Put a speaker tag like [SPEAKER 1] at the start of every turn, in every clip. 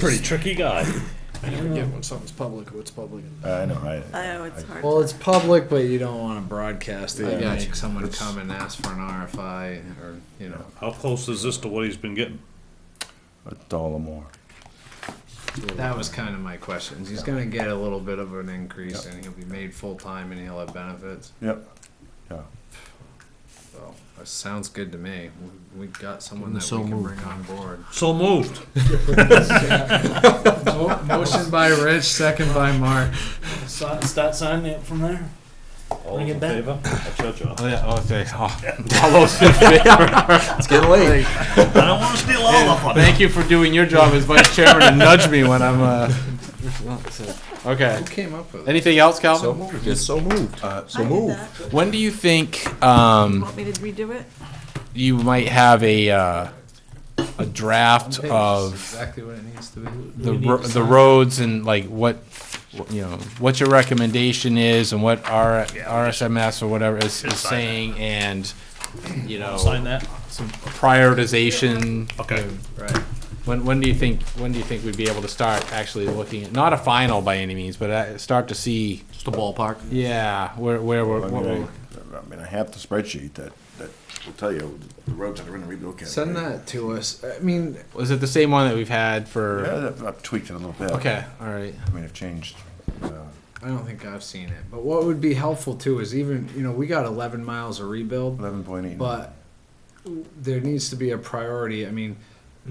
[SPEAKER 1] Pretty tricky guy.
[SPEAKER 2] I never get when something's public, what's public.
[SPEAKER 3] I know, right?
[SPEAKER 4] Oh, it's hard.
[SPEAKER 5] Well, it's public, but you don't want to broadcast it.
[SPEAKER 2] I
[SPEAKER 5] and
[SPEAKER 2] got
[SPEAKER 5] make
[SPEAKER 2] you.
[SPEAKER 5] Someone
[SPEAKER 2] It's-
[SPEAKER 5] come and ask for an RFI, or you know,
[SPEAKER 1] How close is this to what he's been getting?
[SPEAKER 3] A dollar more.
[SPEAKER 5] that was kind of my question. He's going to get a little bit of an increase, and he'll be made full time, and he'll have benefits.
[SPEAKER 3] Yep. Yeah.
[SPEAKER 5] So that sounds good to me. We, we got someone that
[SPEAKER 2] So
[SPEAKER 5] we can
[SPEAKER 2] moved.
[SPEAKER 5] bring on board.
[SPEAKER 1] So moved.
[SPEAKER 5] Mo- Motion by Rich, second by Mark.
[SPEAKER 6] Si- Start signing it from there.
[SPEAKER 1] All
[SPEAKER 6] Bring
[SPEAKER 1] those
[SPEAKER 6] it
[SPEAKER 1] in
[SPEAKER 6] back.
[SPEAKER 1] favor? I'll judge you.
[SPEAKER 3] Oh yeah. Oh, thanks. all those in favor.
[SPEAKER 5] It's getting late.
[SPEAKER 1] I don't want to steal all of them.
[SPEAKER 2] Thank you for doing your job as vice chairman and nudge me when I'm, uh, okay.
[SPEAKER 5] Who came up with it?
[SPEAKER 2] Anything else,
[SPEAKER 3] So
[SPEAKER 2] Calvin?
[SPEAKER 3] moved. It's so moved. Uh, so
[SPEAKER 4] I did
[SPEAKER 3] moved.
[SPEAKER 4] that.
[SPEAKER 2] When do you think, um,
[SPEAKER 4] Want me to redo it?
[SPEAKER 2] you might have a, uh, a draft
[SPEAKER 5] Page is
[SPEAKER 2] of
[SPEAKER 5] exactly what it needs to be.
[SPEAKER 2] the, ro- the roads and like what, you know, what your recommendation is and what R, RSMS or whatever is, is
[SPEAKER 1] Just sign it.
[SPEAKER 2] saying and, you know,
[SPEAKER 1] Sign that.
[SPEAKER 2] some prioritization.
[SPEAKER 1] Okay.
[SPEAKER 5] Right.
[SPEAKER 2] When, when do you think, when do you think we'd be able to start actually looking at, not a final by any means, but uh, start to see,
[SPEAKER 7] Just a ballpark.
[SPEAKER 2] yeah, where, where, we're-
[SPEAKER 3] I
[SPEAKER 2] what
[SPEAKER 3] mean,
[SPEAKER 2] we're.
[SPEAKER 3] I, I mean, I have the spreadsheet that, that will tell you the roads that are in the rebuild category.
[SPEAKER 5] Send that to us. I mean,
[SPEAKER 2] Was it the same one that we've had for?
[SPEAKER 3] Yeah, I've tweaked it a little bit.
[SPEAKER 2] Okay, all right.
[SPEAKER 3] I mean, I've changed. Uh,
[SPEAKER 5] I don't think I've seen it. But what would be helpful too is even, you know, we got 11 miles of rebuild,
[SPEAKER 3] Eleven point eight.
[SPEAKER 5] but there needs to be a priority. I mean,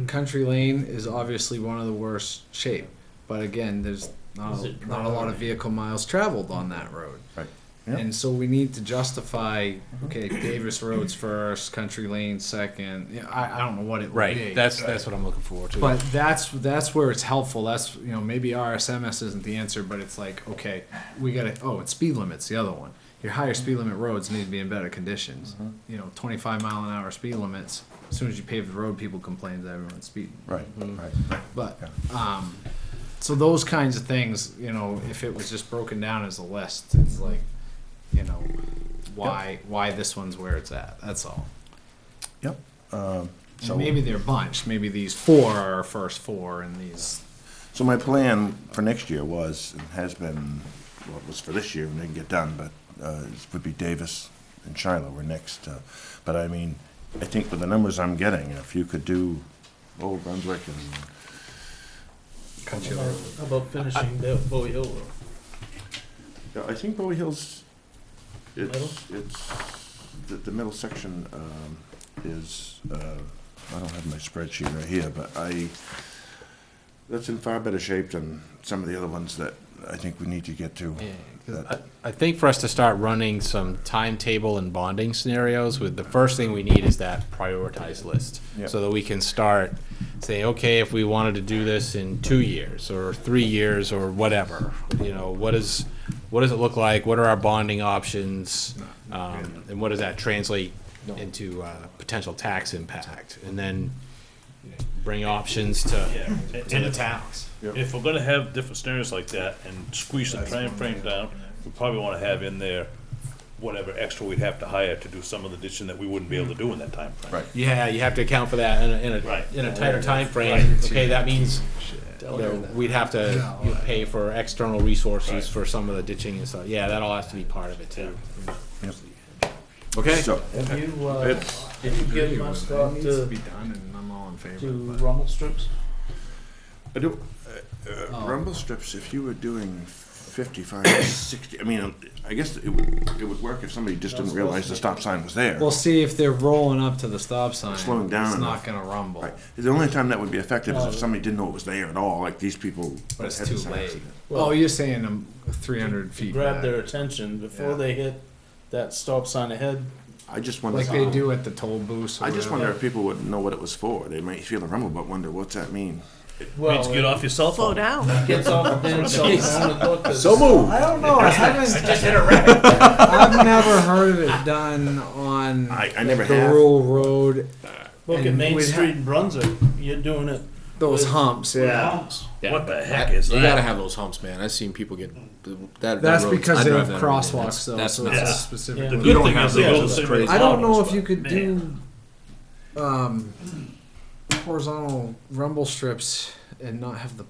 [SPEAKER 5] Country Lane is obviously one of the worst shape, but again, there's not,
[SPEAKER 6] Is it
[SPEAKER 5] not a lot of vehicle miles traveled on that road.
[SPEAKER 3] Right. Yeah.
[SPEAKER 5] And so we need to justify, okay, Davis Roads first, Country Lane second. Yeah, I, I don't know what it would be.
[SPEAKER 2] Right, that's, that's what I'm looking for too.
[SPEAKER 5] But that's that's where it's helpful. That's you know maybe RSMS isn't the answer, but it's like okay, we got to oh it's speed limits the other one. Your higher speed limit roads need to be in better conditions. You know, 25 mile an hour speed limits. As soon as you pave the road, people complain that everyone's speeding.
[SPEAKER 3] Right.
[SPEAKER 5] Mm-hmm.
[SPEAKER 3] Right.
[SPEAKER 5] But um, so those kinds of things, you know, if it was just broken down as a list, it's like you know why why this one's where it's at. That's all.
[SPEAKER 3] Yep. Um,
[SPEAKER 5] So
[SPEAKER 3] so
[SPEAKER 5] maybe they're bunched. Maybe these four are our first four, and these.
[SPEAKER 3] So my plan for next year was, and has been, well, it was for this year and didn't get done, but uh, it would be Davis and Shiloh were next. uh, But I mean, I think with the numbers I'm getting, if you could do Old Brunswick and,
[SPEAKER 5] Country
[SPEAKER 6] How about- How about finishing that Bowie Hill Road?
[SPEAKER 3] Yeah, I think Bowie Hills, it's,
[SPEAKER 6] Middle?
[SPEAKER 3] it's, the, the middle section um, is, uh, I don't have my spreadsheet right here, but I, that's in far better shape than some of the other ones that I think we need to get to.
[SPEAKER 2] Yeah, 'cause I I think for us to start running some timetable and bonding scenarios with, the first thing we need is that prioritized list.
[SPEAKER 3] Yeah.
[SPEAKER 2] So that we can start, say, okay, if we wanted to do this in two years or three years or whatever, you know, what is, what does it look like? What are our bonding options? Um, and what does that translate into, uh, potential tax impact? And then bring options to,
[SPEAKER 1] Yeah.
[SPEAKER 2] to
[SPEAKER 1] And
[SPEAKER 2] the
[SPEAKER 1] if,
[SPEAKER 2] towns.
[SPEAKER 1] if we're gonna have different scenarios like that and squeeze the time frame down, we probably wanna have in there whatever extra we'd have to hire to do some of the ditching that we wouldn't be able to do in that time frame.
[SPEAKER 3] Right.
[SPEAKER 2] Yeah, you have to account for that in a, in
[SPEAKER 1] Right.
[SPEAKER 2] a, in a tighter timeframe.
[SPEAKER 1] Right.
[SPEAKER 2] Okay, that means you know, we'd have to you know, pay for external
[SPEAKER 1] Right.
[SPEAKER 2] resources for some of the ditching and stuff. Yeah, that all has to be part of it too.
[SPEAKER 3] Okay. So,
[SPEAKER 6] Have you, uh,
[SPEAKER 3] It's-
[SPEAKER 6] did you give much thought
[SPEAKER 5] It needs to
[SPEAKER 6] to,
[SPEAKER 5] be done, and I'm all in favor.
[SPEAKER 6] to
[SPEAKER 5] but-
[SPEAKER 6] rumble strips?
[SPEAKER 3] I do, uh,
[SPEAKER 6] Oh.
[SPEAKER 3] uh, rumble strips, if you were doing 55, 60, I mean, I guess it would, it would work if somebody just didn't realize the stop sign was there.
[SPEAKER 5] We'll see if they're rolling up to the stop sign.
[SPEAKER 3] Slowing down
[SPEAKER 5] It's
[SPEAKER 3] enough.
[SPEAKER 5] not going to rumble.
[SPEAKER 3] Right. The only time that would be effective
[SPEAKER 5] Oh.
[SPEAKER 3] is if somebody didn't know it was there at all, like these people.
[SPEAKER 5] But it's
[SPEAKER 3] that had
[SPEAKER 5] too
[SPEAKER 3] the sign.
[SPEAKER 5] late.
[SPEAKER 6] Well-
[SPEAKER 5] oh, you're saying I'm 300 feet.
[SPEAKER 6] Grab
[SPEAKER 5] back.
[SPEAKER 6] their attention before
[SPEAKER 5] Yeah.
[SPEAKER 6] they hit that stop sign ahead.
[SPEAKER 3] I just wonder,
[SPEAKER 5] Like they do at the toll booth.
[SPEAKER 3] I just wonder if people would know what it was for. They might feel the rumble, but wonder, what's that mean?
[SPEAKER 1] Means get off your cell
[SPEAKER 4] Slow
[SPEAKER 1] phone.
[SPEAKER 4] down.
[SPEAKER 6] Gets off the damn cell phone and look, 'cause
[SPEAKER 3] move.
[SPEAKER 5] I don't know. I haven't.
[SPEAKER 1] Just hit a rabbit.
[SPEAKER 5] I've never heard of it done on
[SPEAKER 3] I, I never
[SPEAKER 5] the
[SPEAKER 3] have.
[SPEAKER 5] rural road.
[SPEAKER 6] Look at
[SPEAKER 5] And
[SPEAKER 6] Main
[SPEAKER 5] we'd ha-
[SPEAKER 6] Street in Brunswick, you're doing it.
[SPEAKER 5] Those
[SPEAKER 6] with-
[SPEAKER 5] humps,
[SPEAKER 6] with
[SPEAKER 5] yeah.
[SPEAKER 6] humps.
[SPEAKER 1] What the heck is
[SPEAKER 7] You gotta
[SPEAKER 1] that?
[SPEAKER 7] have those humps, man. I've seen people get that.
[SPEAKER 5] That's
[SPEAKER 7] that road-
[SPEAKER 5] because
[SPEAKER 7] I
[SPEAKER 5] they
[SPEAKER 7] drive
[SPEAKER 5] have
[SPEAKER 7] that every day.
[SPEAKER 5] crosswalks, though.
[SPEAKER 7] That's,
[SPEAKER 5] so
[SPEAKER 7] that's
[SPEAKER 1] nuts.
[SPEAKER 5] it's a specific.
[SPEAKER 6] Yeah.
[SPEAKER 1] The
[SPEAKER 5] road.
[SPEAKER 1] good
[SPEAKER 7] don't
[SPEAKER 1] thing
[SPEAKER 7] have
[SPEAKER 1] is they
[SPEAKER 7] those.
[SPEAKER 1] go the
[SPEAKER 7] It's
[SPEAKER 1] same
[SPEAKER 7] crazy.
[SPEAKER 1] as
[SPEAKER 5] I don't know if
[SPEAKER 1] ours,
[SPEAKER 5] you
[SPEAKER 1] but
[SPEAKER 5] could
[SPEAKER 1] man.
[SPEAKER 5] do um, horizontal rumble strips and not have the